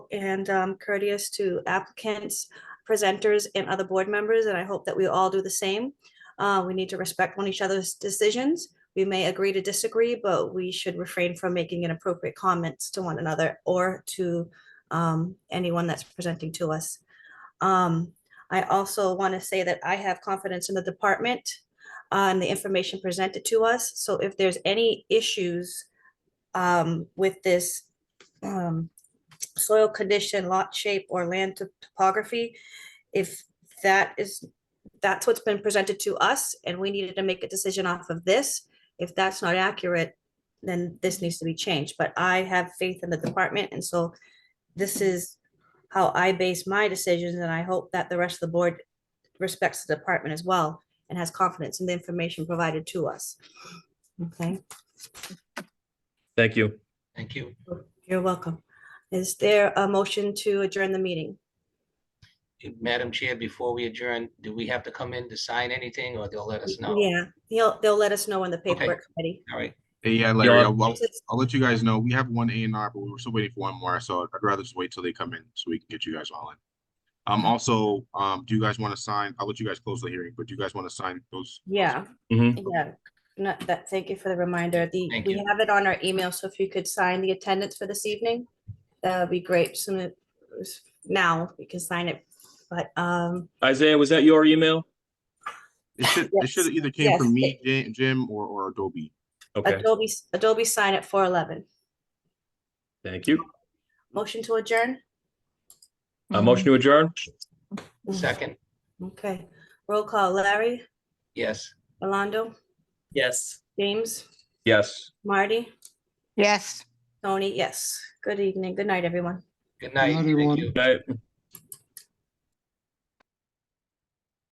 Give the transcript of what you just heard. and um, courteous to applicants, presenters, and other board members, and I hope that we all do the same. Uh, We need to respect one each other's decisions. We may agree to disagree, but we should refrain from making inappropriate comments to one another or to um, anyone that's presenting to us. Um, I also want to say that I have confidence in the department uh, and the information presented to us. So if there's any issues um, with this um, soil condition, lot shape, or land to- topography, if that is, that's what's been presented to us, and we needed to make a decision off of this, if that's not accurate, then this needs to be changed. But I have faith in the department, and so this is how I base my decisions, and I hope that the rest of the board respects the department as well and has confidence in the information provided to us. Okay, Thank you. Thank you. you're welcome. Is there a motion to adjourn the meeting? Madam Chair, before we adjourn, do we have to come in to sign anything or they'll let us know? Yeah, he'll, they'll let us know in the paperwork committee. All right, Hey, Yeah, Larry, Yeah. I'll, I'll- It's- I'll let you guys know. We have one A and R, but we're still waiting for one more, so I'd rather just wait till they come in so we can get you guys all in. Mm-hmm. Um, also, um, do you guys want to sign, I'll let you guys close the hearing, but do you guys want to sign those? Yeah. Mhm. Yeah, not that, thank you for the reminder. The, Mm-hmm. Thank we you. have it on our email, so if you could sign the attendance for this evening, that would be great. Soon as- now, we can sign it, but, um, Isaiah, was that your email? It should, it should have either came Yes, from me, Ja- Jim, or, or Adobe. Okay, Adobe, Adobe sign at four eleven. thank you. Motion to adjourn? A motion to adjourn? second, Mm-hmm. Okay, roll call, Larry, yes. Rolando, Yes. James, Yes. Marty, Yes. Tony, yes. Good evening, good night, everyone. Good night. Thank everyone. you. Good night.